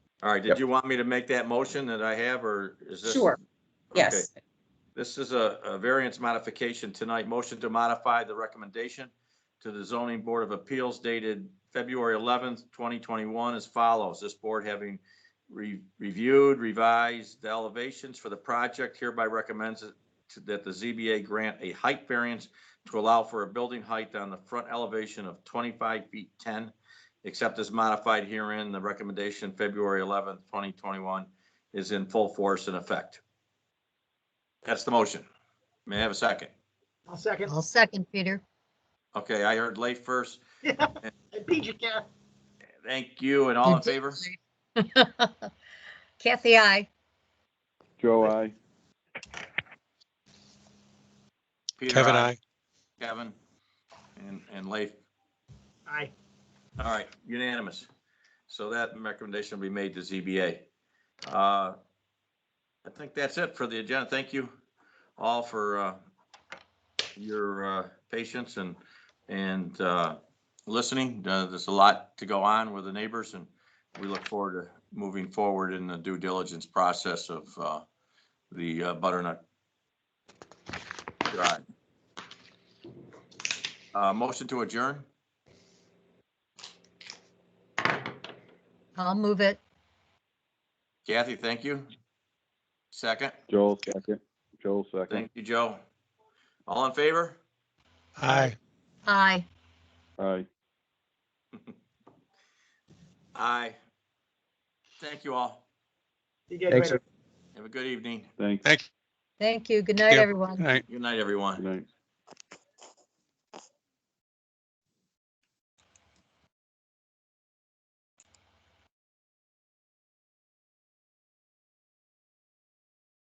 All right, did Yep. you want me to make that motion that I have, or is this? Sure, Okay. yes. This is a, a variance modification tonight. Motion to modify the recommendation to the zoning board of appeals dated February 11th, 2021 as follows. This board having re- reviewed, revised the elevations for the project hereby recommends it to- that the ZBA grant a height variance to allow for a building height on the front elevation of 25 feet 10, except as modified herein. The recommendation, February 11th, 2021, is in full force and effect. That's the motion. May I have a second? I'll second. I'll second, Peter. Okay, I heard late first. I beat you, Kath. Thank you, and all You in did favor? great. Kathy, I. Joe, I. Peter, Kevin, aye. I. Kevin, and, and Leif. Aye. All right, unanimous. So that recommendation will be made to ZBA. Uh, I think that's it for the agenda. Thank you all for uh, your uh, patience and, and uh, listening. Uh, There's a lot to go on with the neighbors, and we look forward to moving forward in the due diligence process of uh, the uh, butternut. drive. Uh, Motion to adjourn? I'll move it. Kathy, thank you. Second, Joel, second. Joel, second. thank you, Joe. All in favor? Aye. Aye. Aye. Aye. Thank you all. You get Thanks, ready. Have a good evening. Thanks. Thank Thank you. Good night, Yeah. everyone. you. Aye. Good night, everyone. Good night.